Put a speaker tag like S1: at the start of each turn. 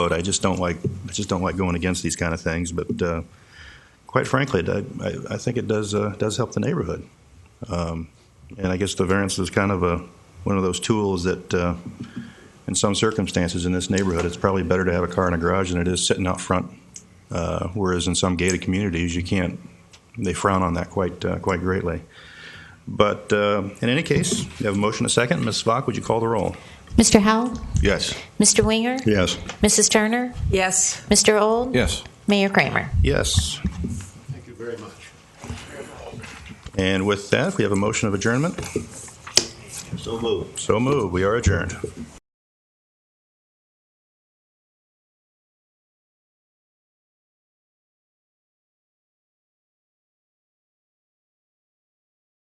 S1: vote. I just don't like, I just don't like going against these kind of things, but uh, quite frankly, I- I, I think it does, uh, does help the neighborhood. Um, And I guess the variance is kind of a, one of those tools that, uh, in some circumstances in this neighborhood, it's probably better to have a car in a garage than it is sitting out front. Uh, Whereas in some gated communities, you can't, they frown on that quite, uh, quite greatly. But uh, in any case, you have a motion, a second. Ms. Svak, would you call the roll?
S2: Mr. Howell?
S1: Yes.
S2: Mr. Winger?
S1: Yes.
S2: Mrs. Turner?
S3: Yes.
S2: Mr. Old?
S4: Yes.
S2: Mayor Kramer?
S1: Yes.
S5: Thank you very much.
S1: And with that, we have a motion of adjournment. So moved. So moved. We are adjourned.